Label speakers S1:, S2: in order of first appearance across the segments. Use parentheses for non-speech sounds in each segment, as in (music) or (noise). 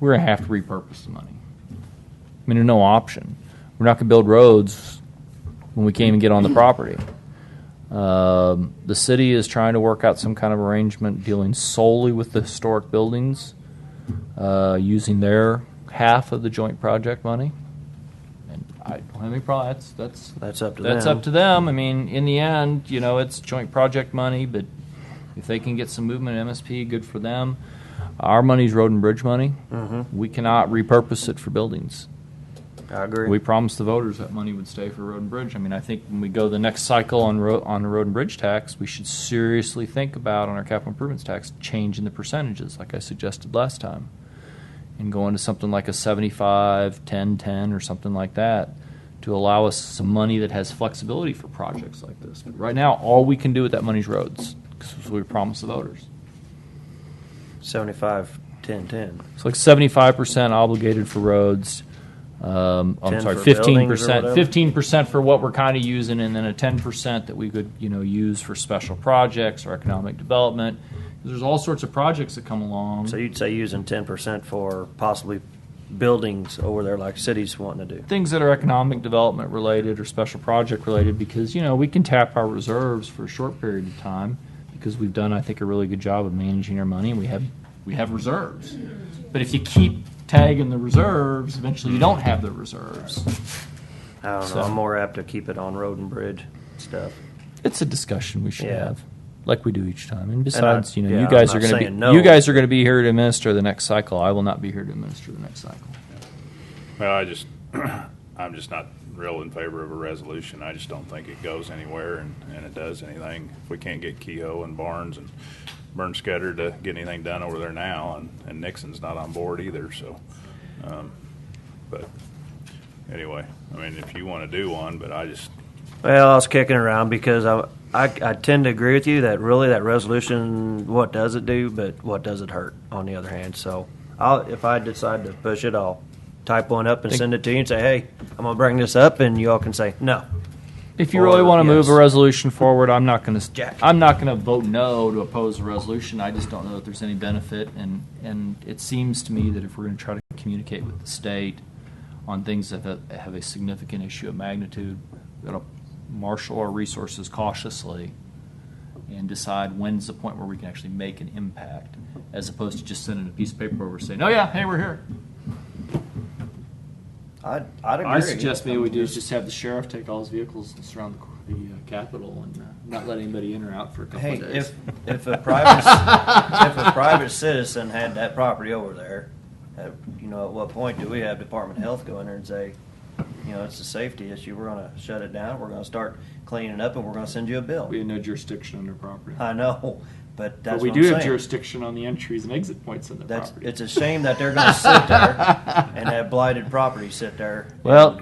S1: we're gonna have to repurpose the money. I mean, there's no option. We're not gonna build roads when we can't even get on the property. Um, the city is trying to work out some kind of arrangement dealing solely with the historic buildings, uh, using their half of the joint project money. And I don't have any problem. That's that's
S2: That's up to
S1: that's
S2: them.
S1: up to them. I mean, in the end, you know, it's joint project money, but if they can get some movement in MSP, good for them. Our money's road and bridge money. We cannot repurpose it for buildings.
S2: I agree.
S1: We promised the voters that money would stay for road and bridge. I mean, I think when we go the next cycle on road, on the road and bridge tax, we should seriously think about on our capital improvements tax, changing the percentages, like I suggested last time. And going to something like a 75, 10, 10, or something like that, to allow us some money that has flexibility for projects like this. But right now, all we can do with that money is roads, because we promised the voters.
S2: 75, 10, 10.
S1: It's like seventy-five percent obligated for roads. Um, I'm
S2: 10
S1: sorry,
S2: for
S1: fifteen
S2: buildings or
S1: percent,
S2: whatever?
S1: fifteen percent for what we're kind of using, and then a ten percent that we could, you know, use for special projects or economic development. 'Cause There's all sorts of projects that come along.
S2: So you'd say using 10% for possibly buildings over there like cities wanting to do.
S1: things that are economic development related or special project related because you know we can tap our reserves for a short period of time because we've done I think a really good job of managing our money and we have we have reserves. But if you keep tagging the reserves, eventually you don't have the reserves.
S2: I don't know.
S1: So-
S2: I'm more apt to keep it on road and bridge stuff.
S1: It's a discussion we should
S2: Yeah.
S1: have. Like we do each time, and besides, you know,
S2: yeah,
S1: you
S2: I'm
S1: guys are going
S2: not
S1: to be
S2: saying no.
S1: you guys are going to be here to administer the next cycle. I will not be here to administer the next cycle.
S3: Well, I just, (clears throat) I'm just not real in favor of a resolution. I just don't think it goes anywhere and, and it does anything. If we can't get Kehoe and Barnes and Bernsketter to get anything done over there now, and, and Nixon's not on board either, so. um, But anyway, I mean, if you want to do one, but I just,
S2: Well, I was kicking around because I, I, I tend to agree with you that really that resolution, what does it do, but what does it hurt on the other hand. So I'll, if I decide to push it, I'll type one up and
S1: Think-
S2: send it to you and say, hey, I'm going to bring this up, and you all can say, no.
S1: If you
S2: Or,
S1: really want to move
S2: yes.
S1: a resolution forward, I'm not going to.
S2: Jack.
S1: I'm not going to vote no to oppose the resolution. I just don't know that there's any benefit, and and it seems to me that if we're going to try to communicate with the state on things that have- have a significant issue of magnitude, we got to marshal our resources cautiously and decide when's the point where we can actually make an impact, as opposed to just sending a piece of paper over saying, "Oh yeah, hey, we're here."
S2: I'd, I'd agree.
S1: I suggest maybe we do is just have the sheriff take all his vehicles and surround the, qu- the uh, Capitol and uh, not let anybody in or out for a couple
S2: Hey,
S1: of days.
S2: if, if a private, if a private citizen had that property over there, at, you know, at what point do we have Department of Health go in there and say, you know, it's a safety issue, we're gonna shut it down, we're gonna start cleaning up, and we're gonna send you a bill?
S1: we have no jurisdiction on their property,
S2: I know, but
S1: but
S2: Uh, that's
S1: we
S2: what
S1: do
S2: I'm
S1: have
S2: saying.
S1: jurisdiction on the entries and exit points in their
S2: That's,
S1: property.
S2: it's a shame that they're gonna
S1: (laughs)
S2: sit there and have blighted property sit there.
S1: well,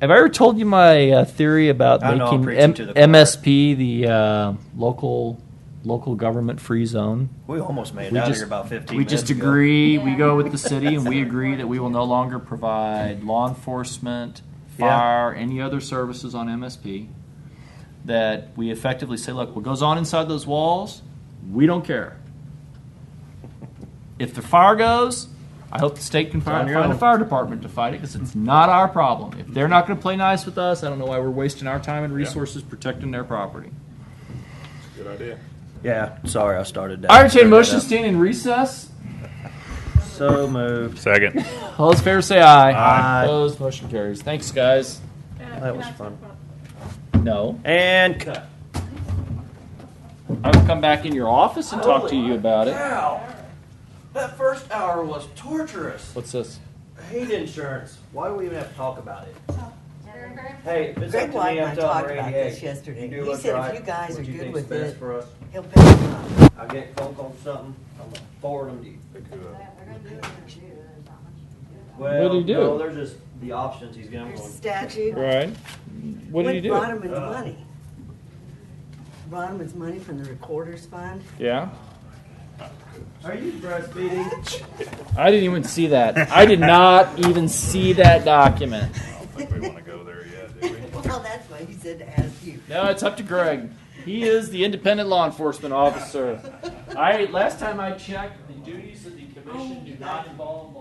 S1: have I ever told you my uh, theory about
S2: I know, I'm
S1: making
S2: preaching
S1: M-
S2: to the choir.
S1: MSP the uh, local local government free zone?
S2: We almost made it
S1: We
S2: out of
S1: just-
S2: here about fifteen
S1: We
S2: minutes
S1: just
S2: ago.
S1: agree, we go with the city and we agree that we will no longer provide law enforcement,
S2: Yeah.
S1: fire, any other services on MSP. That we effectively say, look, what goes on inside those walls, we don't care. If the fire goes, I hope the state can
S2: on
S1: find,
S2: your
S1: find a
S2: own.
S1: fire department to fight it because it's not our problem. If they're not going to play nice with us, I don't know why we're wasting our time and resources protecting their property.
S3: good idea.
S2: Yeah, sorry, I started that.
S1: I entertain
S2: Screwed that
S1: motion
S2: up.
S1: stand in recess.
S2: So moved.
S3: Second.
S1: All those in favor say aye.
S2: Aye.
S1: Opposed, motion carries. Thanks, guys.
S2: That was fun.
S1: No.
S2: And cut.
S1: I will come back in your office and talk to you about it.
S2: Wow. That first hour was torturous.
S1: What's this?
S2: Hate insurance. Why do we even have to talk about it? Hey,
S4: Hey.
S2: if it's up
S4: Greg
S2: to me,
S4: Whiteman
S2: I'm
S4: talked
S2: telling
S4: about
S2: Randy,
S4: this
S2: hey, you
S4: yesterday.
S2: do
S4: He
S2: what's
S4: said
S2: right.
S4: if you guys
S2: what
S4: are
S2: you
S4: good
S2: think's
S4: with
S2: best
S4: it,
S2: for us.
S4: he'll pick them up.
S2: I get phone call something, I'm gonna forward them to you.
S1: What'd he
S2: Well,
S1: do?
S2: no, they're just the options he's giving
S4: There's
S2: them.
S4: statute.
S1: Right. What did he
S4: With
S1: do?
S4: Bronman's money. Bronman's money from the recorder's fund.
S1: Yeah.
S2: Are you breastfeeding?
S1: I didn't even see that. I did not even see that document.
S3: I don't think we want to go there yet, do we?
S4: Well, that's why he said to ask you.
S1: No, it's up to Greg. He is the independent law enforcement officer. I last time I checked, the duties of the commission do not involve